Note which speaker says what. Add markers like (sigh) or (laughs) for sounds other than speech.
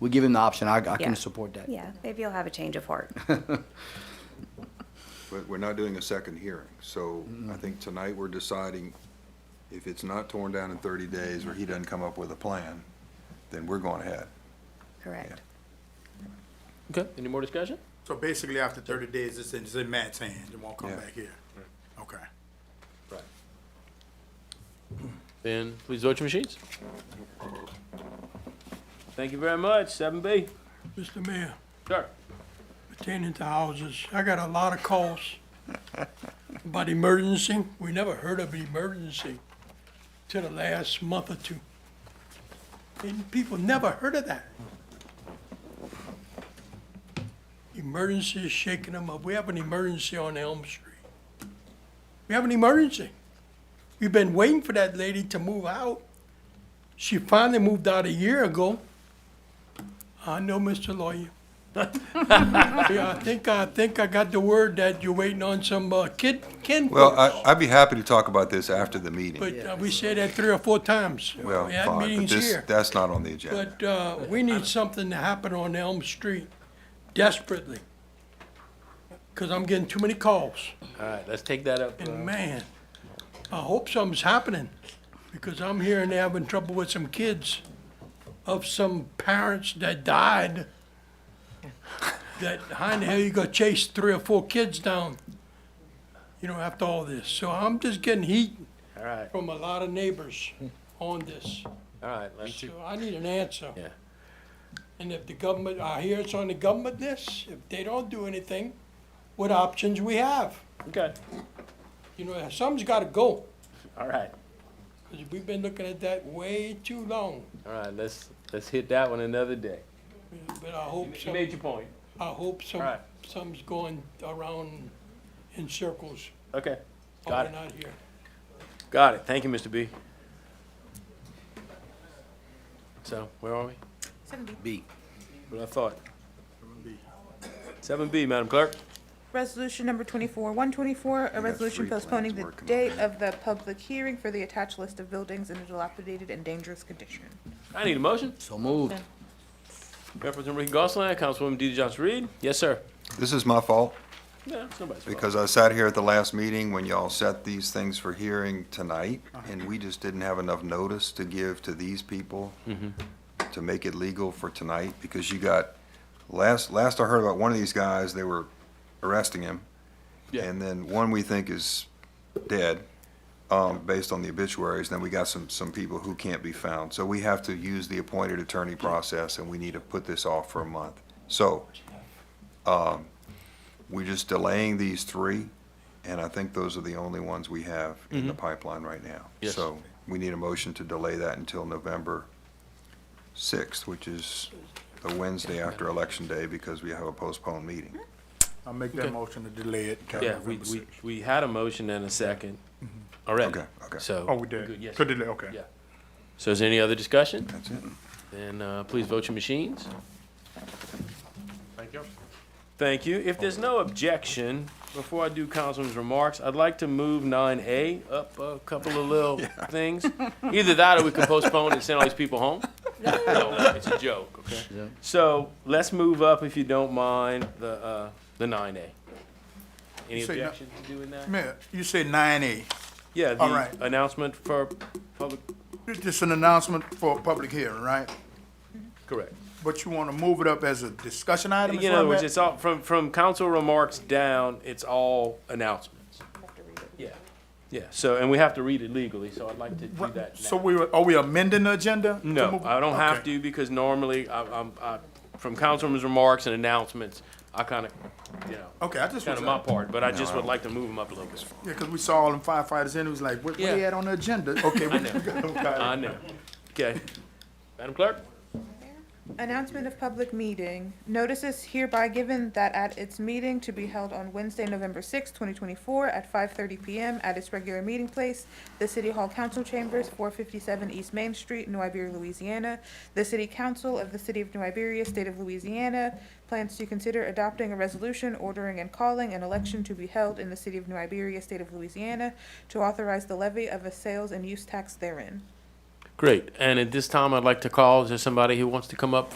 Speaker 1: we give him the option. I, I
Speaker 2: Yeah.
Speaker 1: can support that.
Speaker 2: Yeah, maybe you'll have a change of heart.
Speaker 3: But we're not doing a second hearing, so I think tonight we're deciding if it's not torn down in thirty days or he doesn't come up with a plan, then we're going ahead.
Speaker 2: Correct.
Speaker 4: Okay, any more discussion?
Speaker 5: So basically, after thirty days, it's in, it's in Matt's hands, it won't come
Speaker 3: Yeah.
Speaker 5: back here. Okay.
Speaker 4: Right. Then please vote your machines. Thank you very much, seven B.
Speaker 6: Mr. Mayor,
Speaker 4: Sure.
Speaker 6: attending to houses, I got a lot of calls about emergency. We never heard of emergency till the last month or two. And people never heard of that. Emergency is shaking them up. We have an emergency on Elm Street. We have an emergency. We've been waiting for that lady to move out. She finally moved out a year ago. I know, Mr. Lawyer. Yeah, I think, I think I got the word that you're waiting on some uh, kid, kin
Speaker 3: Well,
Speaker 6: folks.
Speaker 3: I, I'd be happy to talk about this after the meeting.
Speaker 6: But uh, we said that three or four times.
Speaker 3: Well,
Speaker 6: We had
Speaker 3: fine, but
Speaker 6: meetings
Speaker 3: this,
Speaker 6: here.
Speaker 3: that's not on the agenda.
Speaker 6: But uh, we need something to happen on Elm Street desperately. Because I'm getting too many calls.
Speaker 4: All right, let's take that up. uh,
Speaker 6: And man, I hope something's happening. Because I'm hearing they're having trouble with some kids of some parents that died. That, how in the hell you gonna chase three or four kids down? You know, after all this. So I'm just getting heat
Speaker 4: All right,
Speaker 6: from a lot of neighbors on this.
Speaker 4: all right, let's,
Speaker 6: So I need an answer.
Speaker 4: Yeah.
Speaker 6: And if the government, I hear it's on the government list, if they don't do anything, what options we have?
Speaker 4: okay,
Speaker 6: You know, something's gotta go,
Speaker 4: all right,
Speaker 6: because we've been looking at that way too long.
Speaker 4: all right, let's, let's hit that one another day.
Speaker 6: But I hope
Speaker 4: You
Speaker 6: some,
Speaker 4: made your point.
Speaker 6: I hope some,
Speaker 4: Alright.
Speaker 6: some's going around in circles
Speaker 4: Okay,
Speaker 6: while
Speaker 4: got
Speaker 6: we're
Speaker 4: it,
Speaker 6: not here.
Speaker 4: got it. Thank you, Mr. B. So, where are we?
Speaker 1: B.
Speaker 4: What I thought. Seven B, Madam Clerk.
Speaker 7: Resolution number twenty-four, one twenty-four, a resolution
Speaker 3: three plans
Speaker 7: postponing the
Speaker 3: working on
Speaker 7: date of the public hearing for the attached list of buildings in a dilapidated and dangerous condition.
Speaker 4: I need a motion.
Speaker 1: So moved.
Speaker 4: Representative Ricky Gosselin, Councilwoman D. Johnson Reed. Yes, sir.
Speaker 3: This is my fault.
Speaker 4: No, it's nobody's fault.
Speaker 3: Because I sat here at the last meeting when y'all set these things for hearing tonight, and we just didn't have enough notice to give to these people to make it legal for tonight, because you got, last, last I heard about one of these guys, they were arresting him.
Speaker 4: Yeah.
Speaker 3: And then one we think is dead, um, based on the obituaries, then we got some, some people who can't be found. So we have to use the appointed attorney process, and we need to put this off for a month. So, we're just delaying these three, and I think those are the only ones we have in the pipeline right now.
Speaker 4: Yes.
Speaker 3: So we need a motion to delay that until November 6th, which is the Wednesday after Election Day, because we have a postponed meeting.
Speaker 5: I'll make
Speaker 4: Okay.
Speaker 5: that motion to delay it. till
Speaker 4: Yeah, we,
Speaker 5: November
Speaker 4: we,
Speaker 5: 6th.
Speaker 4: we had a motion and a second already.
Speaker 3: Mm-hmm. Okay, okay.
Speaker 4: So.
Speaker 5: Oh, we
Speaker 4: Good,
Speaker 5: did.
Speaker 4: yes,
Speaker 5: To
Speaker 4: sir.
Speaker 5: delay, okay.
Speaker 4: Yeah. So is there any other discussion?
Speaker 3: That's it.
Speaker 4: Then, uh, please vote your machines. Thank you. Thank you. If there's no objection, before I do Councilman's remarks, I'd like to move nine A up a couple
Speaker 3: (laughs)
Speaker 4: of little things. Either that or we can postpone and send all these people home. No, it's a joke, okay? So let's move up, if you don't mind, the, uh, the nine A. Any
Speaker 5: You say no-
Speaker 4: objection to doing that?
Speaker 5: Mayor, you said nine A.
Speaker 4: Yeah,
Speaker 5: All right.
Speaker 4: the announcement for public,
Speaker 5: It's just an announcement for a public hearing, right?
Speaker 4: correct.
Speaker 5: But you want to move it up as a discussion item? is
Speaker 4: In
Speaker 5: where
Speaker 4: other
Speaker 5: I'm
Speaker 4: words,
Speaker 5: at?
Speaker 4: it's all, from, from council remarks down, it's all announcements. Yeah, yeah, so, and we have to read it legally, so I'd like to do
Speaker 5: What-
Speaker 4: that
Speaker 5: So
Speaker 4: now.
Speaker 5: we, were- are we amending the agenda? to
Speaker 4: No,
Speaker 5: move-
Speaker 4: I don't have
Speaker 5: Okay.
Speaker 4: to, because normally, I, I'm, I, from councilman's remarks and announcements, I kinda, you know,
Speaker 5: Okay, I just was,
Speaker 4: kinda my
Speaker 5: yeah,
Speaker 4: part, but I just would like to move them up a little bit.
Speaker 5: because we saw all them firefighters in, it was like, what, what
Speaker 4: Yeah.
Speaker 5: they had on
Speaker 4: (laughs)
Speaker 5: the agenda? Okay. we- (laughs)
Speaker 4: I know, okay. Madam Clerk?
Speaker 7: Announcement of public meeting. Notice is hereby given that at its meeting to be held on Wednesday, November sixth, twenty twenty-four, at five thirty PM at its regular meeting place, the City Hall Council Chambers, four fifty-seven East Main Street, New Iberia, Louisiana. The City Council of the City of New Iberia, State of Louisiana, plans to consider adopting a resolution ordering and calling an election to be held in the City of New Iberia, State of Louisiana, to authorize the levy of a sales and use tax therein.
Speaker 4: Great, and at this time, I'd like to call, is there somebody who wants to come up